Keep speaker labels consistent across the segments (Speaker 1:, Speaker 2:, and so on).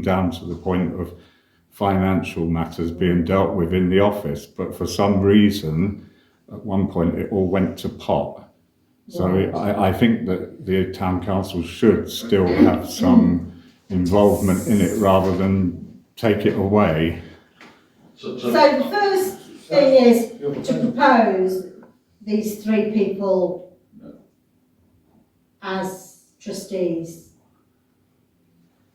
Speaker 1: down to the point of financial matters being dealt with in the office. But for some reason, at one point, it all went to pot. So I, I think that the town council should still have some involvement in it rather than take it away.
Speaker 2: So,
Speaker 3: So
Speaker 2: so,
Speaker 3: the first thing is
Speaker 2: your
Speaker 3: to
Speaker 2: proposal,
Speaker 3: propose these three people as trustees.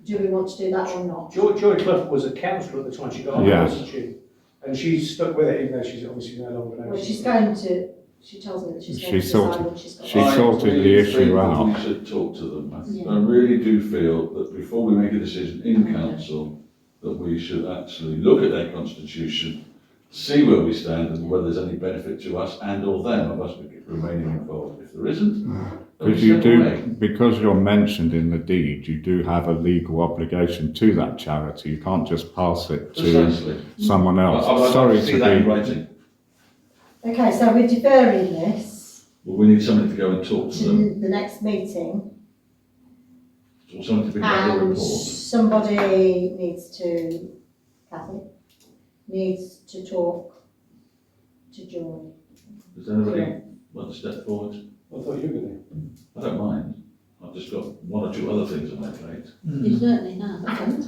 Speaker 3: Do we want to do that or not?
Speaker 4: George, George Clough was a councillor at the time she got on,
Speaker 1: Yeah.
Speaker 4: wasn't she?
Speaker 5: And she's stuck with it, even though she's obviously no longer an
Speaker 3: Well, she's going to, she tells me that she's going to
Speaker 1: She
Speaker 3: decide
Speaker 1: sorted-
Speaker 3: when she's got.
Speaker 1: she
Speaker 2: I
Speaker 1: sorted the
Speaker 2: really
Speaker 1: issue
Speaker 2: think that
Speaker 1: out.
Speaker 2: We should talk to them. I-
Speaker 3: Yeah.
Speaker 2: I really do feel that before we make a decision in council, that we should actually look at their constitution, see where we stand and whether there's any benefit to us and or them of us remaining involved. If there isn't, then we
Speaker 1: Because Mm. you
Speaker 2: step
Speaker 1: do,
Speaker 2: away.
Speaker 1: because you're mentioned in the deed, you do have a legal obligation to that charity. You can't just pass it to
Speaker 2: Precisely.
Speaker 1: someone
Speaker 2: I- I would like
Speaker 1: else.
Speaker 2: to
Speaker 1: Sorry
Speaker 2: see that in
Speaker 1: to
Speaker 2: writing.
Speaker 3: Okay, so we're deferring this
Speaker 2: Well, we need somebody to go and talk to them,
Speaker 3: to the next meeting
Speaker 2: or somebody to bring back a
Speaker 3: Mm. and
Speaker 2: report.
Speaker 3: somebody needs to, Kathy, needs to talk to George.
Speaker 2: Does anybody want to step forward?
Speaker 5: I thought you were going
Speaker 2: I don't mind. I've just got one or two other things on my plate.
Speaker 6: You certainly have.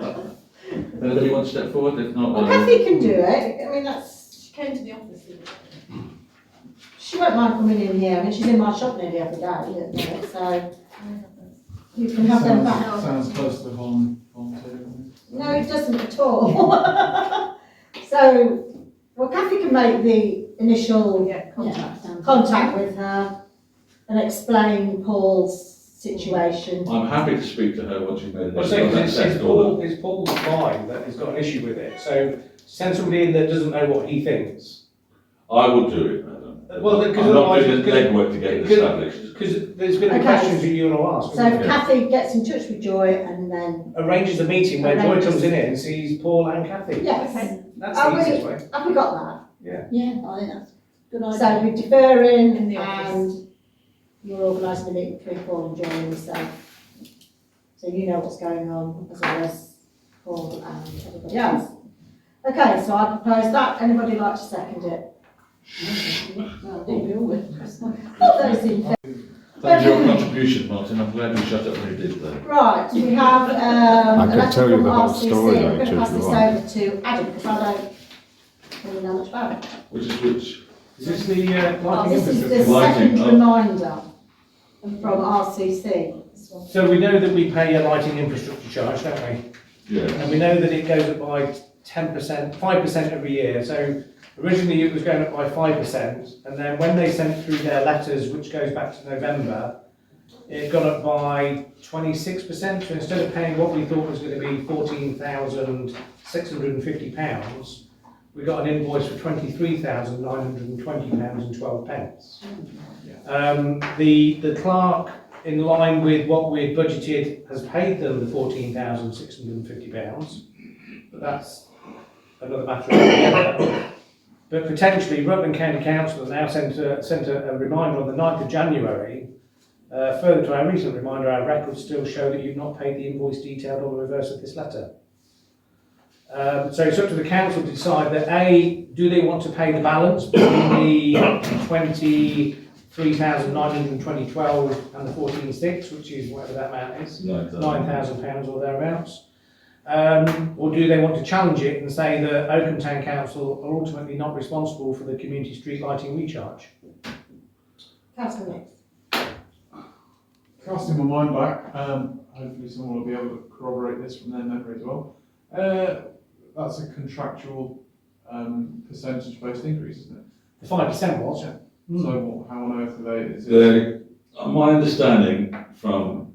Speaker 2: Anybody want to step forward? If not,
Speaker 3: Well,
Speaker 7: Um,
Speaker 2: I'll...
Speaker 3: Kathy can do it, I mean, that's, she came to the office. didn't She She won't mind coming in here, I mean, she's in my shop nearly every day, you know, so. You can have them back.
Speaker 7: Sounds sounds close to volun- volunteering.
Speaker 3: No, it doesn't at all. So, well, Kathy can make the initial
Speaker 6: Yeah, sounds-
Speaker 3: contact with her and explain Paul's situation.
Speaker 2: I'm happy to speak to her once you've made a
Speaker 5: Well, so,
Speaker 2: decision.
Speaker 5: it's, it's Paul, it's Paul's mind that has got an issue with it, so send somebody in that doesn't know what he thinks.
Speaker 2: I would do it, madam.
Speaker 5: Well, then, 'cause
Speaker 2: I'm not
Speaker 5: otherwise
Speaker 2: doing the
Speaker 5: it's gonna-
Speaker 2: legwork to get it
Speaker 5: Because-
Speaker 2: established.
Speaker 5: Because there's gonna be
Speaker 3: Okay.
Speaker 5: questions that you wanna ask.
Speaker 3: So
Speaker 5: isn't
Speaker 3: if
Speaker 5: there?
Speaker 3: Kathy gets in touch with Joy and then,
Speaker 5: Arranges a meeting where Joy
Speaker 3: Arranges. Oh,
Speaker 5: comes in here and sees Paul and Kathy.
Speaker 3: yes,
Speaker 5: That's
Speaker 3: Are
Speaker 5: the
Speaker 3: we-
Speaker 5: easiest way.
Speaker 3: have we got
Speaker 6: Oh, Yeah, I think that's a good
Speaker 3: that? So
Speaker 6: idea.
Speaker 3: we're deferring
Speaker 6: In the office.
Speaker 3: and you're organising a meeting between Paul and Joy and yourself. So you know what's going on as well as Paul and everybody else. Okay, so I propose that, anybody like to second it?
Speaker 6: Well, I think we all would.
Speaker 3: All those in favour?
Speaker 2: Thank you for your contribution, Martin. I'm glad you shut up when you did that.
Speaker 3: Right, we have, um.
Speaker 1: I
Speaker 3: a
Speaker 1: could
Speaker 3: letter
Speaker 1: tell you
Speaker 3: from
Speaker 1: the whole
Speaker 3: RCC.
Speaker 1: story, though,
Speaker 3: I'm going
Speaker 1: too,
Speaker 3: to
Speaker 1: if you
Speaker 3: pass this over to Adam, because I don't really know much about it.
Speaker 2: Which is which?
Speaker 5: Is this the, uh,
Speaker 3: Oh,
Speaker 5: lighting
Speaker 3: This is the
Speaker 5: infrastructure?
Speaker 2: Lighting,
Speaker 3: second
Speaker 2: oh.
Speaker 3: reminder from RCC.
Speaker 5: So we know that we pay a lighting infrastructure charge, don't we?
Speaker 2: Yeah.
Speaker 5: And we know that it goes up by ten percent, five percent every year, so originally it was going up by five percent, and then when they sent through their letters, which goes back to November, it got up by twenty-six percent, so instead of paying what we thought was gonna be fourteen thousand six hundred and fifty pounds, we got an invoice for twenty-three thousand nine hundred and twenty pounds and twelve pence. Um, the, the clerk, in line with what we had budgeted, has paid them the fourteen thousand six hundred and fifty pounds. But that's another matter altogether. But potentially Rutland County Council has now sent a, sent a a reminder on the 9th of January. Uh, further to our recent reminder, our records still show that you've not paid the invoice detailed on the reverse of this letter. Um, so it's up to the council to decide that A, do they want to pay the balance between the twenty-three thousand nine hundred and twenty twelve and the fourteen six, which is whatever that amount is
Speaker 2: Nine
Speaker 5: nine thousand pounds or thereabouts. Um, or do they want to challenge it and say that Oakham Town Council are ultimately not responsible for the community street lighting recharge?
Speaker 3: Councillor Nick.
Speaker 7: Casting my mind back, um, hopefully someone will be able to corroborate this from their memory as well. Uh, that's a contractual, um, percentage based increase, isn't it?
Speaker 5: The five percent was. Hmm.
Speaker 7: So what, how on earth are they, is it?
Speaker 2: The, uh, my understanding from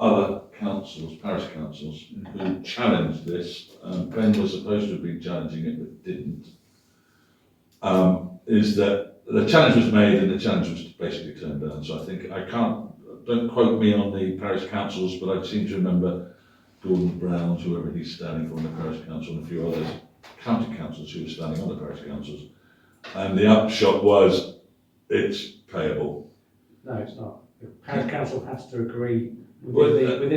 Speaker 2: other councils, parish councils, who challenged this, um, Ben was supposed to have been challenging it but didn't, um, is that the challenge was made and the challenge was basically turned down. So I think, I can't, don't quote me on the parish councils, but I seem to remember Gordon Brown, whoever he's standing for in the parish council, and a few others, county councils who were standing on the parish councils. And the upshot was, it's payable.
Speaker 5: No, it's not. The parish council has to agree
Speaker 2: Well,
Speaker 5: within the,
Speaker 2: uh,
Speaker 5: within